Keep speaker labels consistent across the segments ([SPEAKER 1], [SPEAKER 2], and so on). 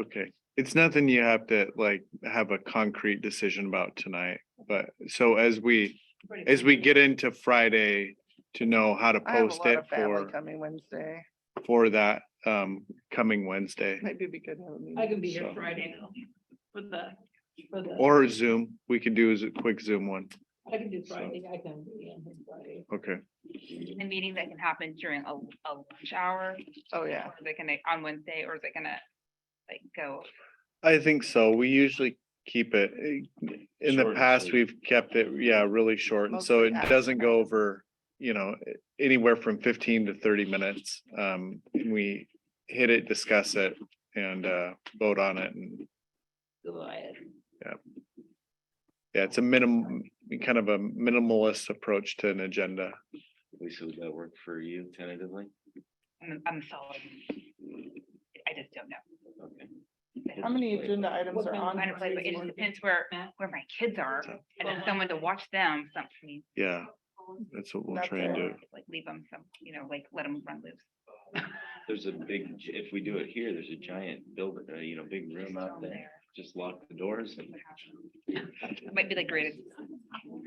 [SPEAKER 1] Okay, it's nothing you have to like have a concrete decision about tonight, but so as we, as we get into Friday. To know how to
[SPEAKER 2] I have a
[SPEAKER 1] post
[SPEAKER 2] lot
[SPEAKER 1] it
[SPEAKER 2] of family
[SPEAKER 1] for,
[SPEAKER 2] coming Wednesday.
[SPEAKER 1] for that, um, coming Wednesday
[SPEAKER 2] Maybe we could have a meeting.
[SPEAKER 3] I can be here
[SPEAKER 1] So-
[SPEAKER 3] Friday though, for the, for the.
[SPEAKER 1] or Zoom, we can do is a quick Zoom one,
[SPEAKER 3] I can do Friday, I can be on here Friday.
[SPEAKER 1] okay,
[SPEAKER 4] the meeting that can happen during a, a lunch hour?
[SPEAKER 2] Oh, yeah.
[SPEAKER 4] Or Is it gonna, on Wednesday, or is it gonna, like, go?
[SPEAKER 1] I think so, we usually keep it. eh, In the
[SPEAKER 5] Short and
[SPEAKER 1] past,
[SPEAKER 5] sweet.
[SPEAKER 1] we've kept it, yeah, really short, and so
[SPEAKER 2] Mostly
[SPEAKER 1] it
[SPEAKER 2] after
[SPEAKER 1] doesn't go
[SPEAKER 2] practice.
[SPEAKER 1] over, you know, eh, anywhere from fifteen to thirty minutes. Um, we hit it, discuss it, and, uh, vote on it, and
[SPEAKER 3] So I-
[SPEAKER 1] Yeah, it's a minimum, kind of a minimalist approach to an agenda.
[SPEAKER 5] Lisa, would that work for you tentatively?
[SPEAKER 4] I'm, I'm solid. I just don't know.
[SPEAKER 5] Okay.
[SPEAKER 2] How many agenda items
[SPEAKER 3] What
[SPEAKER 2] are
[SPEAKER 3] kind of
[SPEAKER 2] on?
[SPEAKER 4] I don't play,
[SPEAKER 2] today's
[SPEAKER 4] but it just
[SPEAKER 2] one?
[SPEAKER 4] depends where, where my kids are, and if someone to watch them, something.
[SPEAKER 1] Yeah, that's what we'll
[SPEAKER 2] That's
[SPEAKER 1] try and
[SPEAKER 2] fair.
[SPEAKER 1] do.
[SPEAKER 4] Like, leave them some, you know, like, let them run loose.
[SPEAKER 5] There's a big, gi- if we do it here, there's a giant building, uh, you know, big room out there. Just lock the doors and.
[SPEAKER 4] It Might be the greatest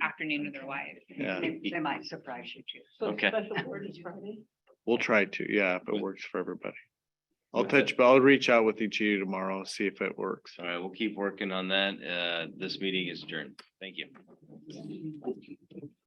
[SPEAKER 4] afternoon of their lives.
[SPEAKER 1] Yeah,
[SPEAKER 5] They
[SPEAKER 4] might surprise you too.
[SPEAKER 3] So
[SPEAKER 5] Okay.
[SPEAKER 3] special board is Friday.
[SPEAKER 1] we'll try to, yeah, if it
[SPEAKER 5] With-
[SPEAKER 1] works for everybody. I'll
[SPEAKER 5] with
[SPEAKER 1] touch,
[SPEAKER 5] it.
[SPEAKER 1] but I'll reach out with each of you tomorrow, see if it works.
[SPEAKER 5] All right, we'll keep working on that. Uh, this meeting is adjourned. Thank you.